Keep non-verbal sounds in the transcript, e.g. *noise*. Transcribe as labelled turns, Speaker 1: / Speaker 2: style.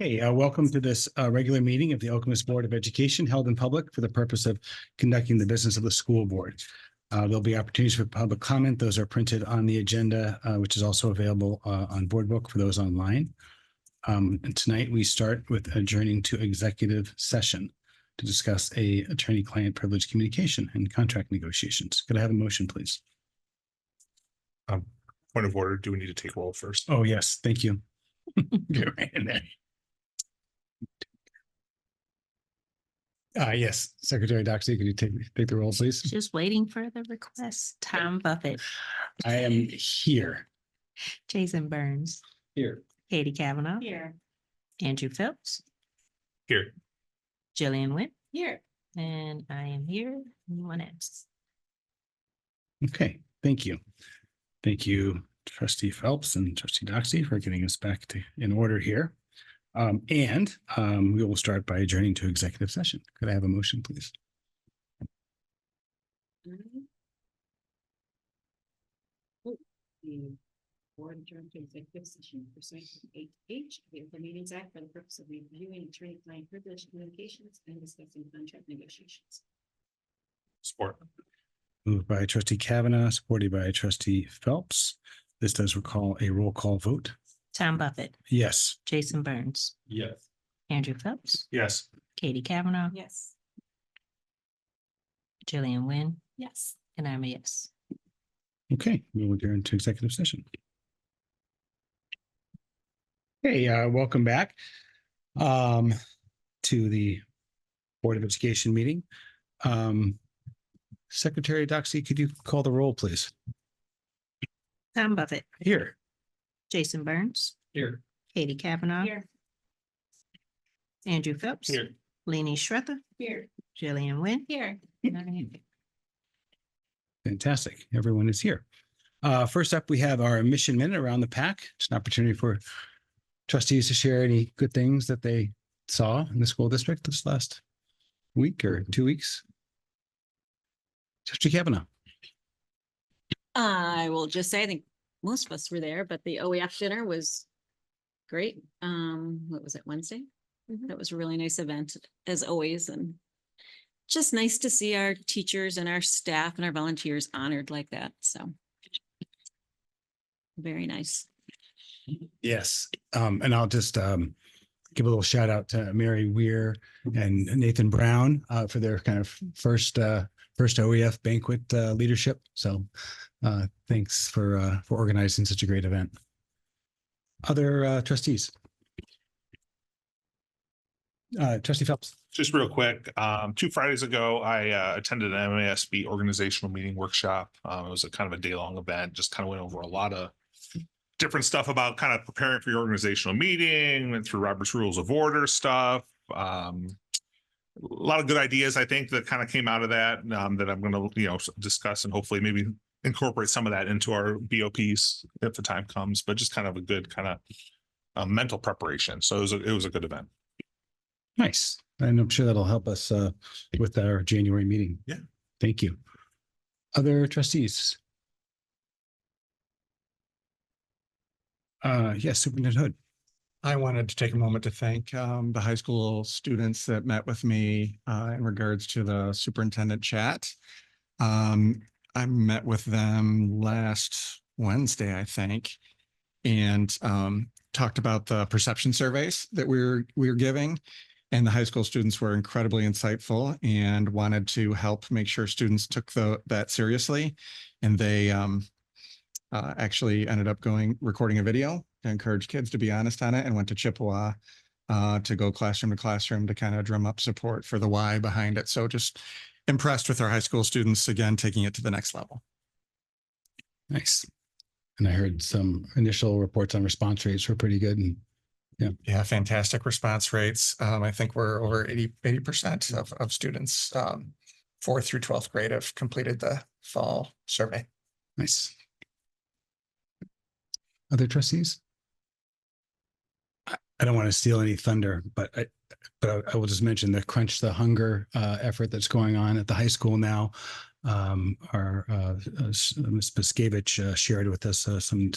Speaker 1: Hey, uh, welcome to this uh, regular meeting of the Okemos Board of Education held in public for the purpose of conducting the business of the school board. Uh, There'll be opportunities for public comment. Those are printed on the agenda, uh, which is also available uh, on Board Book for those online. Um, And tonight, we start with adjourning to executive session to discuss a attorney-client privilege communication and contract negotiations. Could I have a motion, please?
Speaker 2: Um, Point of order, do we need to take roll first?
Speaker 1: Oh, yes, thank
Speaker 2: *laughs*
Speaker 1: you. Get right in there. Uh, yes, Secretary Doxy, could you take, take the roll, please?
Speaker 3: Just waiting for the request. Tom Buffett,
Speaker 1: I am here.
Speaker 3: Jason Burns,
Speaker 1: Here.
Speaker 3: Katie Kavanaugh,
Speaker 4: Here.
Speaker 3: Andrew Phelps,
Speaker 2: Here,
Speaker 3: Jillian Wynn,
Speaker 4: Here.
Speaker 3: and I am here. Anyone else?
Speaker 1: Okay, thank you. Thank you, trustee Phelps and trustee Doxy for getting us back to, in order here. Um, and, um, we will start by adjourning to executive session. Could I have a motion, please?
Speaker 4: Mm-hmm. The board adjourned to executive session pursuant to eight H of the Open Meetings Act for the purpose of reviewing attorney-client privilege communications and discussing contract negotiations.
Speaker 2: support.
Speaker 1: Moved by trustee Kavanaugh, supported by trustee Phelps. This does recall a roll call vote.
Speaker 3: Tom Buffett,
Speaker 1: Yes.
Speaker 3: Jason Burns,
Speaker 2: Yes.
Speaker 3: Andrew Phelps,
Speaker 2: Yes,
Speaker 3: Katie Kavanaugh,
Speaker 4: Yes.
Speaker 3: Jillian Wynn,
Speaker 4: Yes.
Speaker 3: and I'm a yes.
Speaker 1: Okay, we will adjourn to executive session. Hey, uh, welcome back um, to the Board of Education meeting. Um, Secretary Doxy, could you call the roll, please?
Speaker 3: Tom Buffett,
Speaker 1: Here.
Speaker 3: Jason Burns,
Speaker 2: here,
Speaker 3: Katie Kavanaugh,
Speaker 4: Here.
Speaker 3: Andrew Phelps,
Speaker 2: here.
Speaker 3: Lenny Schrether,
Speaker 4: Here.
Speaker 3: Jillian Wynn.
Speaker 4: Here.
Speaker 3: and I am here.
Speaker 1: Fantastic. Everyone is here. Uh, First up, we have our mission minute around the pack. It's an opportunity for trustees to share any good things that they saw in the school district this last week or two weeks. Trustee Kavanaugh.
Speaker 4: I will just say, I think most of us were there, but the OEF dinner was great. Um, what was it, Wednesday? That was a really nice event, as always, and just nice to see our teachers and our staff and our volunteers honored like that, so. Very nice.
Speaker 1: Yes, um, and I'll just um give a little shout out to Mary Weir and Nathan Brown uh for their kind of first uh first OEF banquet uh leadership. So uh thanks for uh for organizing such a great event. Other uh trustees? Uh trustee Phelps,
Speaker 2: Just real quick, um, two Fridays ago, I uh, attended an MASB organizational meeting workshop. Um, it was a kind of a day-long event, just kind of went over a lot of different stuff about kind of preparing for your organizational meeting, went through Robert's Rules of Order stuff. Um, a lot of good ideas, I think, that kind of came out of that, um, that I'm gonna, you know, s- discuss and hopefully maybe incorporate some of that into our BOPs if the time comes, but just kind of a good kind of uh, mental preparation. So it was, a- it was a good event.
Speaker 1: nice. And I'm sure that'll help us uh with our January meeting.
Speaker 2: Yeah.
Speaker 1: Thank you. Other trustees? Uh, yes, Superintendent Hood.
Speaker 5: I wanted to take a moment to thank um, the high school students that met with me uh, in regards to the superintendent chat. Um, I met with them last Wednesday, I think, and um, talked about the perception surveys that we were we were giving. And the high school students were incredibly insightful and wanted to help make sure students took the, that seriously. And they um, uh, actually ended up going recording a video to encourage kids to be honest on it and went to Chippewa uh, to go classroom to classroom to kind of drum up support for the why behind it. So just impressed with our high school students again, taking it to the next level.
Speaker 1: Nice. And I heard some initial reports on response rates were pretty good and
Speaker 5: Yeah, fantastic response rates. Um, I think we're over 80, 80% of, of students, um, fourth through 12th grade have completed the fall survey.
Speaker 1: nice. Other trustees? I I don't want to steal any thunder, but I, but I- I will just mention the Crunch the Hunger uh, effort that's going on at the high school now. Um, Our, uh, uh, Ms. Piskevich uh, shared with us uh, some